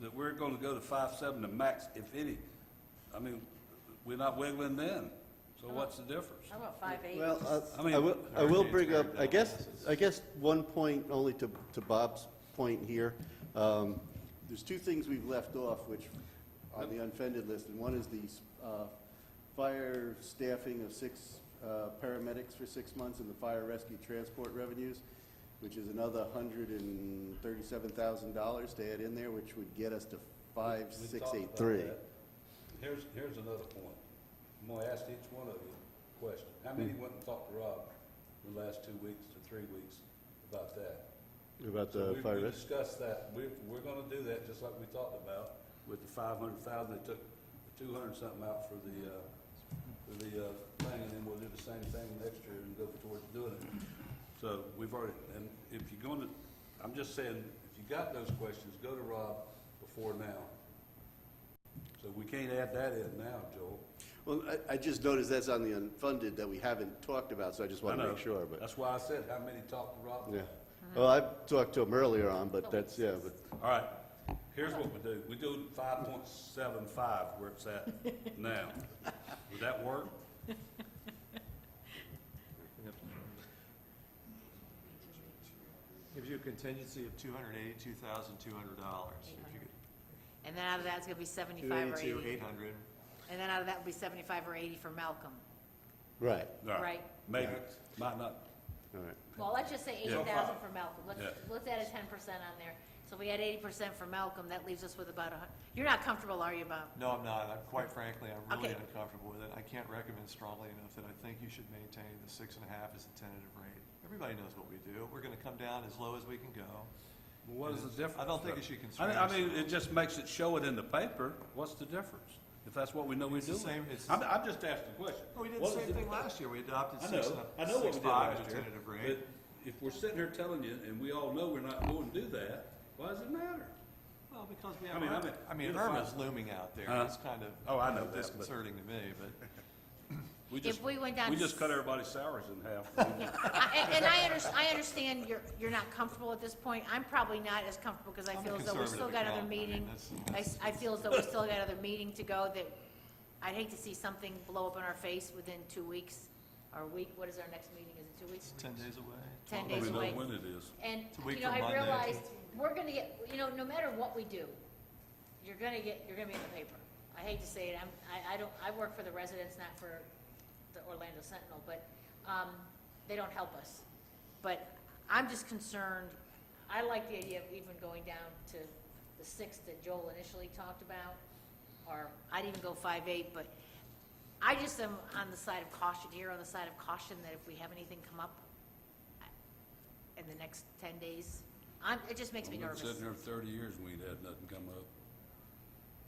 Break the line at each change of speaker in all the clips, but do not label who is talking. that we're gonna go to five seven to max, if any, I mean, we're not wiggling then, so what's the difference?
How about five eight?
Well, uh, I-
I mean,
I will, I will
Hurricane's
bring up,
very
I guess,
difficult.
I guess one point only to, to Bob's point here. Um, There's two things we've left off, which, on the unfunded list, and one is the uh, fire staffing of six uh, paramedics for six months and the fire rescue transport revenues, which is another hundred and thirty-seven thousand dollars to add in there, which would get us to five,
We
six,
talked
eight,
about
three.
that. Here's, here's another point. I'm gonna ask each one of you a question. How many
Hmm.
went and talked to Rob in the last two weeks to three weeks about that?
About
So
the
we-
fire
We
rescue?
discussed that. We, we're gonna do that, just like we talked about, with the five hundred thousand, they took two hundred something out for the, uh, for the, uh, thing, and then we'll do the same thing next year and go towards doing it. So we've already, and if you're gonna, I'm just saying, if you got those questions, go to Rob before now. So we can't add that in now, Joel.
Well, I, I just noticed that's on the unfunded that we haven't talked about, so I just want
I
to
know.
make sure, but.
That's why I said, how many talked to Rob?
Yeah. Well, I talked to him earlier on, but that's, yeah, but,
All right, here's what we do. We do five point seven five where it's at now. Would that work?
Gives you a contingency of two hundred eighty-two thousand, two hundred dollars. If you could,
And then out of that, it's gonna be
two
seventy-five or
eighty-two,
eighty.
eight hundred.
And then out of that would be seventy-five or eighty for Malcolm.
right,
All
Right.
Maybe, might not.
all right.
Well, let's just
Yeah.
say eighty thousand for Malcolm. Let's,
Yeah.
let's add a ten percent on there. So if we add eighty percent for Malcolm, that leaves us with about a hun, you're not comfortable, are you, Bob?
No, I'm not. I'm, quite frankly, I'm really
Okay.
uncomfortable with it. I can't recommend strongly enough that I think you should maintain the six and a half as the tentative rate. Everybody knows what we do. We're gonna come down as low as we can go.
What is the difference?
I don't think it should
I
concern
mean, I mean,
us.
it just makes it show it in the paper. What's the difference? If that's what we know we're
It's the
doing.
same- it's the
I'm, I'm just asking a question.
Well, we did the
What is
same thing last year. We adopted
I
six
know,
and
I
a,
know what
six
we did
five as
last
the
year.
tentative
But
rate.
if we're sitting here telling you, and we all know we're not going to do that, why does it matter?
Well, because we
I
have,
mean, I
Irma-
mean,
I mean,
you're fine.
Irma's looming out there.
Huh?
It's kind of
Oh, I know
kind of
that, but-
disconcerting to me, but.
We
If
just,
we went down
we
to
just cut
s-
everybody's salaries in half.
I- And and I under, I understand you're, you're not comfortable at this point. I'm probably not as comfortable because I
I'm a
feel as though we still
conservative
got another
accountant. I mean,
meeting.
that's-
I, s- I feel as though we still got another meeting to go that I'd hate to see something blow up in our face within two weeks or a week. What is our next meeting? Is it two weeks?
Ten days away.
10
12
days
We know
away.
when it is.
And,
a week
you know,
from
I
Monday.
realized, we're gonna get, you know, no matter what we do, you're gonna get, you're gonna be in the paper. I hate to say it, I'm, I, I don't, I work for the residents, not for the Orlando Sentinel, but, um, they don't help us. But I'm just concerned, I like the idea of even going down to the six that Joel initially talked about, or I'd even go five eight, but I just am on the side of caution here, on the side of caution that if we have anything come up, in the next ten days. I'm, it just makes me
We've been
nervous.
sitting here thirty years and we ain't had nothing come up.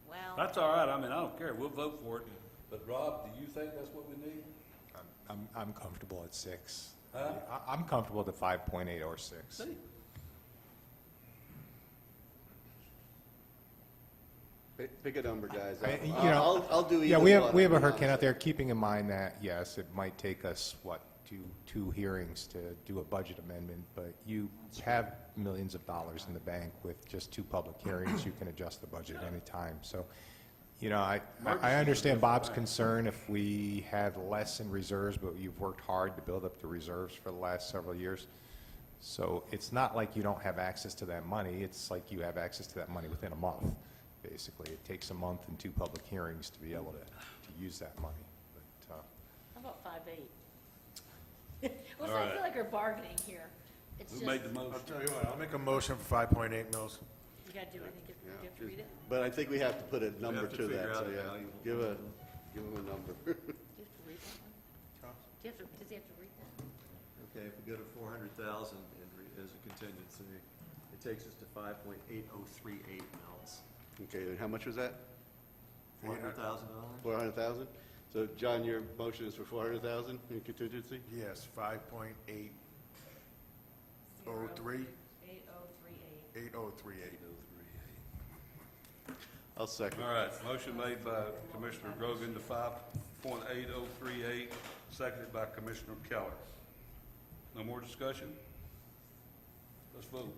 Well,
That's all right, I mean, I don't care, we'll vote for it. But Rob, do you think that's what we need?
I'm- I'm, I'm comfortable at six.
Huh?
I- I'm comfortable at the five point eight or six.
See,
Pick- Pick a number, guys.
I- you
I'll-
know,
I'll, I'll do either
Yeah, we have,
one,
we have a
I'll be
hurricane out
honest.
there, keeping in mind that, yes, it might take us, what, two, two hearings to do a budget amendment, but you have millions of dollars in the bank with just two public hearings, you can adjust the budget at any time, so, you know, I, I- I understand Bob's concern if we had less in reserves, but you've worked hard to build up the reserves for the last several years. So it's not like you don't have access to that money, it's like you have access to that money within a month, basically. It takes a month and two public hearings to be able to, to use that money. But, uh,
how about five eight? Well,
All
so I
right.
feel like we're bargaining here. It's just,
who
you
made the motion?
I'll tell you what, I'll make a motion for five point eight mils.
gotta do, I think, you have to read it.
But I think we have to put a number
have to
to
figure
that, so
out how
yeah,
you-
give a, give him a number.
Do you have to read that one? Do you have to, does he have to read that?
Okay, if we go to four hundred thousand as a contingency, it takes us to five point eight oh three eight mils.
Okay, and how much was that?
Four hundred thousand dollars?
Four hundred thousand? So, John, your motion is for four hundred thousand in contingency?
Yes, five point eight oh three,
Eight oh three eight.
eight oh three eight.
I'll second.
All right, motion made by Commissioner Grogan to five point eight oh three eight, seconded by Commissioner Keller. No more discussion? Let's vote.